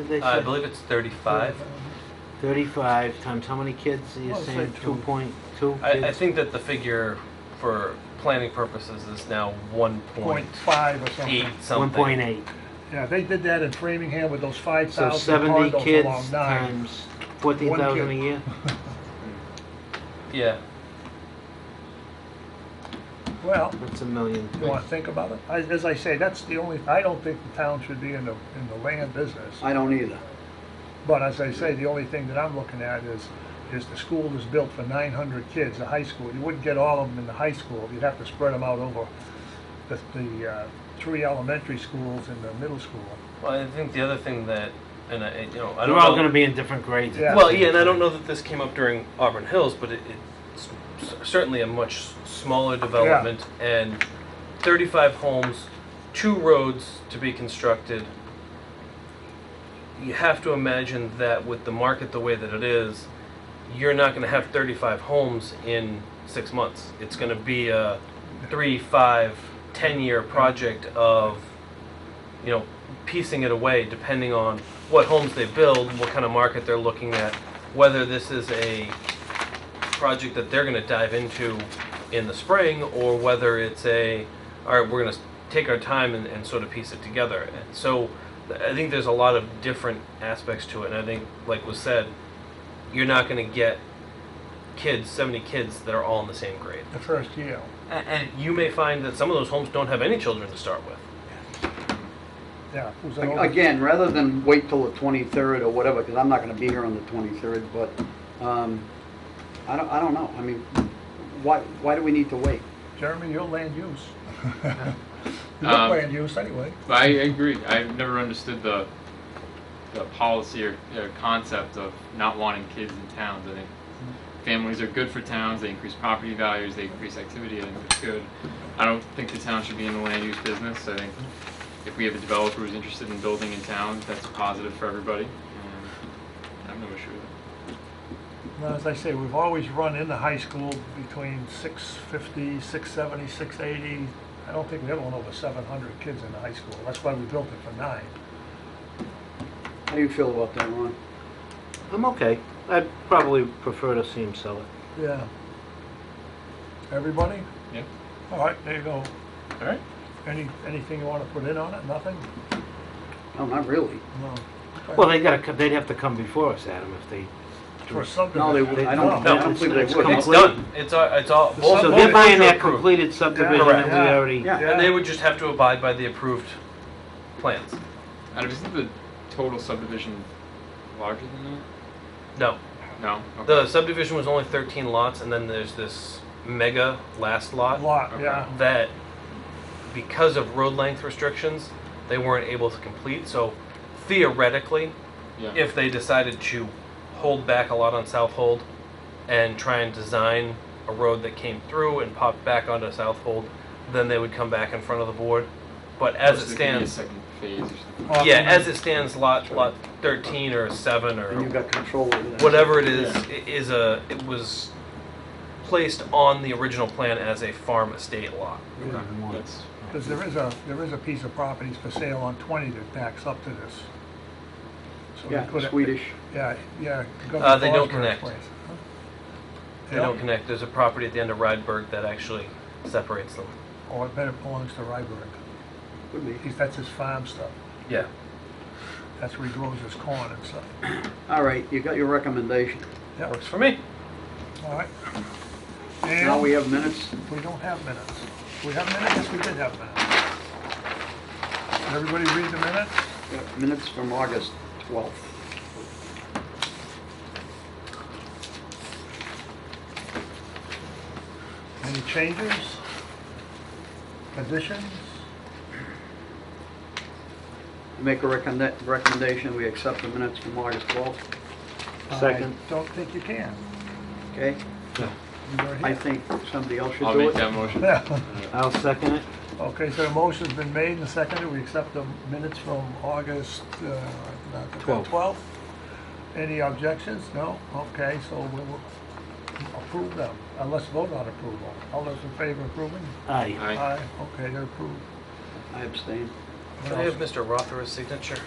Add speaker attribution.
Speaker 1: they
Speaker 2: Uh, I
Speaker 1: say?
Speaker 2: believe it's 35.
Speaker 1: 35 times how many kids? You're
Speaker 3: Well, say
Speaker 1: saying
Speaker 3: two.
Speaker 1: 2.2
Speaker 2: I, I
Speaker 1: kids?
Speaker 2: think that the figure for planning purposes is now 1.8
Speaker 3: Point five or something.
Speaker 2: something.
Speaker 1: 1.8.
Speaker 3: Yeah, they did that in Framingham with those five
Speaker 1: So
Speaker 3: thousand
Speaker 1: 70
Speaker 3: condos
Speaker 1: kids
Speaker 3: along nine.
Speaker 1: times 14,000 a
Speaker 3: kid.
Speaker 1: year?
Speaker 2: Yeah.
Speaker 3: Well,
Speaker 1: That's a million.
Speaker 3: you wanna think about it? I- As I say, that's the only, I don't think the town should be in the, in the land business.
Speaker 4: I don't either.
Speaker 3: But as I say, the only thing that I'm looking at is, is the school was built for nine hundred kids, the high school. You wouldn't get all of them in the high school. You'd have to spread them out over the, the, uh, three elementary schools and the middle school.
Speaker 2: Well, I think the other thing that, and I, you know,
Speaker 1: They're
Speaker 2: I don't
Speaker 1: all
Speaker 2: know-
Speaker 1: going to be in different grades.
Speaker 3: Yeah.
Speaker 2: Well, yeah, and I don't know that this came up during Auburn Hills, but it, it's s- certainly a much s- smaller development and 35 homes, two roads to be constructed. You have to imagine that with the market the way that it is, you're not going to have 35 homes in six months. It's going to be a three, five, 10 year project of, you know, piecing it away depending on what homes they build, what kind of market they're looking at, whether this is a project that they're going to dive into in the spring, or whether it's a, all right, we're going to take our time and, and sort of piece it together. And so th- I think there's a lot of different aspects to it. And I think, like was said, you're not going to get kids, 70 kids that are all in the same grade.
Speaker 3: The first year.
Speaker 2: A- And you may find that some of those homes don't have any children to start with.
Speaker 3: Yeah. it was an over-
Speaker 4: Again, rather than wait till the 23rd or whatever, because I'm not going to be here on the 23rd, but um, I don't, I don't know. I mean, why, why do we need to wait?
Speaker 3: Jeremy, your land use. You look
Speaker 5: Um,
Speaker 3: land use anyway.
Speaker 5: I agree. I've never understood the the policy or, or concept of not wanting kids in towns. I think families are good for towns. They increase property values. They increase activity. I think it's good. I don't think the town should be in the land use business. I think if we have a developer who's interested in building in town, that's a positive for everybody. And I have no issue with it.
Speaker 3: Well, as I say, we've always run in the high school between 650, 670, 680. I don't think we ever went over 700 kids in the high school. That's why we built it for nine.
Speaker 4: How do you feel about that, Ron?
Speaker 1: I'm okay. I'd probably prefer to see him sell it.
Speaker 3: Yeah. Everybody?
Speaker 5: Yeah.
Speaker 3: All right, there you go.
Speaker 5: All right.
Speaker 3: Any, anything you want to put in on it? Nothing?
Speaker 4: No, not really.
Speaker 3: No.
Speaker 1: Well, they got to. They'd have to come before us, Adam, if they.
Speaker 3: For subdivision.
Speaker 4: No, they wouldn't. I don't, I don't
Speaker 1: it's-
Speaker 4: believe they
Speaker 1: it's
Speaker 4: would.
Speaker 2: It's
Speaker 1: Complete.
Speaker 2: done. It's all. It's all. both-
Speaker 1: So
Speaker 3: Well,
Speaker 1: they're
Speaker 2: both
Speaker 1: buying
Speaker 2: roads are
Speaker 1: that
Speaker 2: approved.
Speaker 1: completed subdivision
Speaker 3: Correct.
Speaker 1: that we already.
Speaker 4: Yeah.
Speaker 2: And they would just have to abide by the approved plans.
Speaker 5: Adam, isn't the total subdivision larger than
Speaker 2: No.
Speaker 5: that? No. Okay.
Speaker 2: The subdivision was only 13 lots, and then there's this mega last lot
Speaker 3: Lot, yeah.
Speaker 2: that, because of road length restrictions, they weren't able to complete. So theoretically,
Speaker 5: yeah.
Speaker 2: if they decided to hold back a lot on South Hold and try and design a road that came through and popped back onto South Hold, then they would come back in front of the board. But as
Speaker 5: So
Speaker 2: it
Speaker 5: there could be a
Speaker 2: stands,
Speaker 5: second phase or something.
Speaker 3: Off
Speaker 2: yeah,
Speaker 3: the-
Speaker 2: as it stands, lot lot 13 or 7 or
Speaker 4: And you've got control over that.
Speaker 2: whatever it is,
Speaker 5: Yeah.
Speaker 2: it is a it was placed on the original plan as a farm estate lot.
Speaker 5: That's-
Speaker 3: Because there is a, there is a piece of properties for sale on 20 that backs up to this. So we
Speaker 4: Yeah,
Speaker 3: could-
Speaker 4: Swedish.
Speaker 3: Yeah, yeah.
Speaker 2: Uh, they don't
Speaker 3: Governor Bosberg's
Speaker 2: connect.
Speaker 3: place.
Speaker 2: They don't connect. There's a property at the end of Rydberg that actually separates them.
Speaker 3: Or it better belongs to Ryberg.
Speaker 4: Could be.
Speaker 3: He's- That's his farm stuff.
Speaker 2: Yeah.
Speaker 3: That's where he grows his corn and stuff.
Speaker 4: All right, you got your recommendation.
Speaker 3: Yeah,
Speaker 2: Works for me.
Speaker 3: all right.
Speaker 4: Now
Speaker 3: And
Speaker 4: we
Speaker 3: we
Speaker 4: have minutes.
Speaker 3: don't have minutes. We have minutes? Yes, we did have minutes. Did everybody read the minutes?
Speaker 4: Got uh, Minutes from August 12th.
Speaker 3: Any changes? Additions?
Speaker 4: Make a recommend, recommendation, we accept the minutes from August 12th,
Speaker 1: Second.
Speaker 3: I don't think you can.
Speaker 4: okay?
Speaker 3: You were
Speaker 4: I
Speaker 3: here.
Speaker 4: think somebody else should
Speaker 5: I'll
Speaker 4: do
Speaker 5: make
Speaker 4: it.
Speaker 5: that motion.
Speaker 3: Yeah.
Speaker 1: I'll second it.
Speaker 3: Okay, so the motion's been made and seconded. We accept the minutes from August uh, not the
Speaker 1: Twelve.
Speaker 3: 12th. Any objections? No? Okay, so we will approve them. Uh, Let's vote on approval. All those in favor of approving?
Speaker 1: Aye.
Speaker 5: Aye.
Speaker 3: Aye. Okay, they're approved.
Speaker 4: I abstain.
Speaker 2: Do I have Mr. Rothera's signature?